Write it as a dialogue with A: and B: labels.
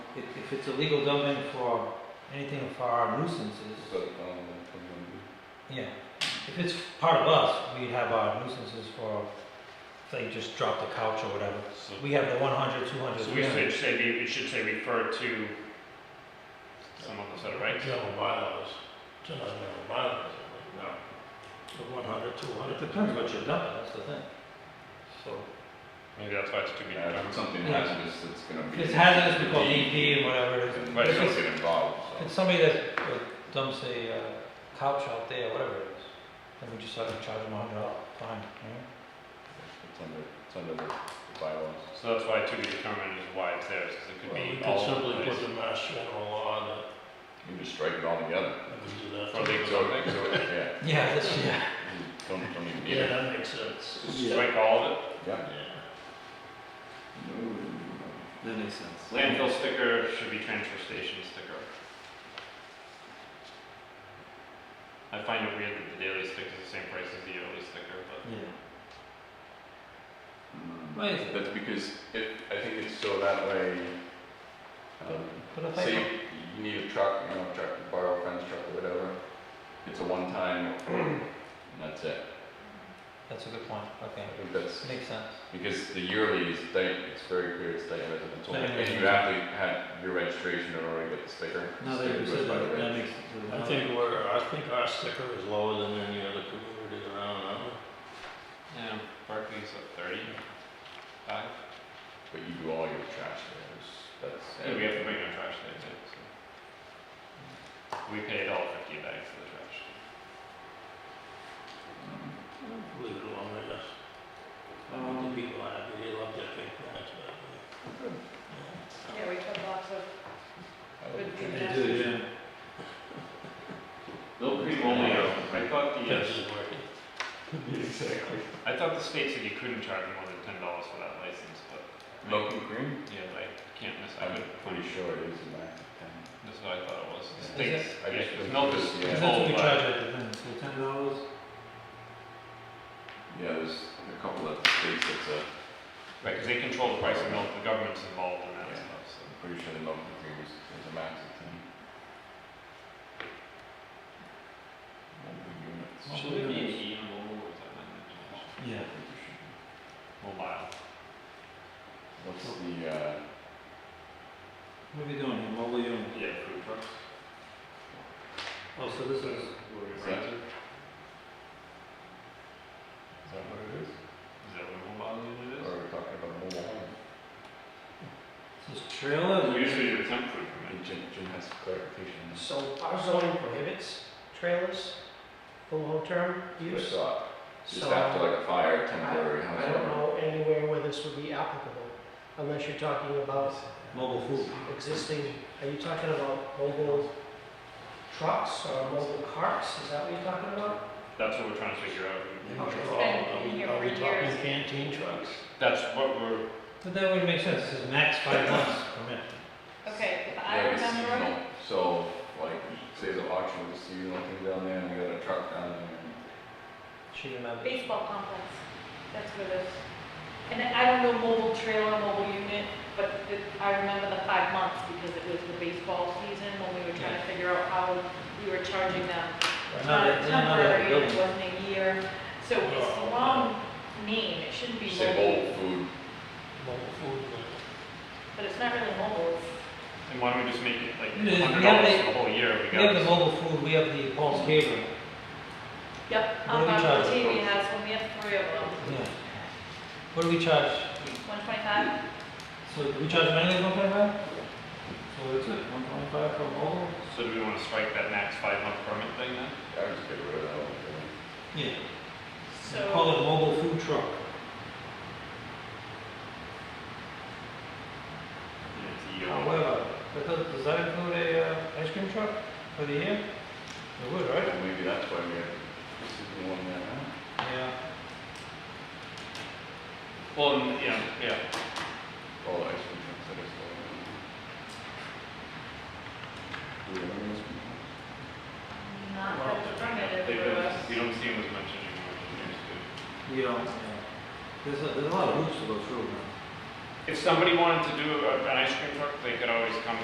A: If, if it's a legal domain for anything for our nuisances,
B: Is that, um, from the-
A: yeah. If it's part of us, we have our nuisances for, say, just drop the couch or whatever.
C: So
A: We have the 100, 200,
C: so we
A: 300.
C: should say, we- it should say refer to someone who said it right.
D: General bylaws, general bylaws, I think, now, the one hundred, two
A: It
D: hundred.
A: depends what you're done, that's the thing. So,
C: Maybe that's why it's too many.
B: Yeah, if it's something
A: Yeah.
B: hazardous, it's gonna
A: if
B: be.
A: it's hazardous, we call DEP and whatever it is.
B: And
C: Right,
B: they
A: If
B: don't
A: it's-
B: get involved,
A: if
B: so.
A: it's somebody that uh, dumps a uh, couch out there, whatever it is, then we just have to charge them a hundred dollars fine, you know?
B: It's under, it's under the bylaws.
C: So that's why to be determined is why it's there, because it could
D: We
C: be
D: could
C: all over
D: simply
C: the
D: put
C: place.
D: the mass general law that,
B: You just strike it all together.
D: that we do that.
C: For legal
B: So,
C: domain.
B: so, yeah,
A: Yeah, that's, yeah.
B: don't, don't even need
D: Yeah,
B: it.
D: that makes sense.
C: Strike all of it.
B: Yeah.
D: Yeah.
E: That makes sense.
C: Landfill sticker should be transfer station sticker. I find it weird that the daily sticker is the same price as the yearly sticker, but
A: Yeah.
B: Mm.
A: Why is it?
B: That's because it, I think it's so that way, um,
A: But if I,
B: say you need a truck, you know, a truck, to borrow a friend's truck or whatever, it's a one-time, and that's it.
A: that's a good point, okay,
B: I think that's,
A: makes sense.
B: because the yearly is state, it's very clear it's state residential,
A: Yeah, yeah,
B: and you
A: yeah.
B: have to have your registration in order to get the sticker.
A: Now that
B: Sticker
A: you
B: goes
A: said
B: by
A: that,
B: the
A: that
B: reg.
A: makes.
D: I think we're, I think our sticker is lower than any other community around, aren't we?
C: yeah, Barclays at thirty five.
B: But you do all your trash there, that's.
C: Yeah, we have to bring our trash there too, so. We pay a dollar fifty a bag for the trash.
B: Mm-hmm.
D: Leave it alone, I guess. The
E: Um,
D: people happy, they love their big bags, but.
B: Good.
F: Yeah, we put lots of
B: I
F: good
B: would-
F: people.
E: do, yeah.
C: Milk cream only, I thought the, uh,
D: Yes, working.
C: I thought the state said you couldn't charge more than ten dollars for that license, but.
B: Milk and cream?
C: Yeah, but I can't miss, I
B: I'm
C: couldn't
B: pretty
C: find,
B: sure it is in that thing.
C: that's what I thought it was, the
B: Is
C: states,
B: I
C: yeah,
B: just
C: 'cause
B: think
C: milk
B: it
C: is
B: was, yeah.
A: Cause that's what we
C: full,
A: charge
C: but.
A: at the thing, so ten dollars,
B: Yeah, there's a couple of states that's a,
C: Right, because they control the price of milk, the government's involved in that
B: Yeah.
C: stuff, so.
B: I'm pretty sure the milk and cream is, is a max of ten. Multiple units.
C: Should it be an E mobile or something?
A: yeah,
C: Mobile.
B: What's the, uh,
A: what are we doing here, mobile unit?
C: Yeah, food trucks.
A: Oh, so this is,
B: is
C: Is
B: that,
C: that,
B: is that what it is?
C: is that what mobile unit
B: Or are we talking about mobile home?
A: this trailer,
C: is?
A: is it-
C: Usually do a temp food
B: I mean,
C: permit.
B: Jim, Jim has some clarification. on this.
G: So our zoning prohibits trailers, full long-term
B: But,
G: use.
B: uh, Just
G: So
B: after like a fire,
G: I
B: temporary
G: I don't
B: household.
G: know anywhere where this would be applicable, unless you're talking about
A: mobile food.
G: existing, are you talking about mobile trucks or mobile carts? Is that what you're talking about?
C: That's what we're trying to figure out.
F: Oh, it's
D: Are
F: been
D: we-
F: in here
D: are we
F: for
D: talking
F: years.
D: Canteen trucks?
C: That's what we're,
A: But that would make sense, this is max five months permit.
F: Okay, if I
B: Like a
F: remember,
B: seasonal, so like, say the auction was a seasonal thing down there and we got a truck down there.
G: She remembers.
F: baseball complex, that's what it is. And then I don't know mobile trailer, mobile unit, but the- I remember the five months because it was the baseball season when we were trying to figure out how we were charging them. It's not a
A: Another- another
F: temporary, it
A: building.
F: wasn't a year, so it's a long name, it shouldn't be
B: Say
F: mobile,
B: mobile food,
D: Mobile food, like-
F: but it's not really mobile, it's
C: and why don't we just make it like
A: Yeah, yeah,
C: hundred dollars
A: they-
C: for the whole year, we
A: We have
C: got
A: the
C: this.
A: mobile food, we have the Paul's Catering,
F: Yep,
A: What do
F: on
A: we
F: our
A: charge?
F: TV has, when we have three of them,
A: yeah. What do we charge?
F: one twenty-five,
A: So do we charge mainly one twenty-five? So it's it, one twenty-five for mobile?
C: So do we wanna strike that max five month permit thing then?
B: I would just get rid of that one.
A: Yeah, call
F: so,
A: it mobile food truck.
C: It's a
B: Oh,
C: year.
A: However, that does, does that include a, uh, ice cream truck for the year? It would, right?
B: Well, Maybe that's why we have, this is the one that, huh?
A: Yeah.
C: Well, and- yeah, yeah,
B: all the ice cream trucks that are still. Do we have any ice cream trucks?
F: not that it's permitted
C: they
F: for
C: don't,
F: us.
C: we don't see them as much anymore. as we used to.
A: You don't, yeah. There's a, there's a lot of hoops to go through, man.
C: If somebody wanted to do a- an ice cream truck, they could always come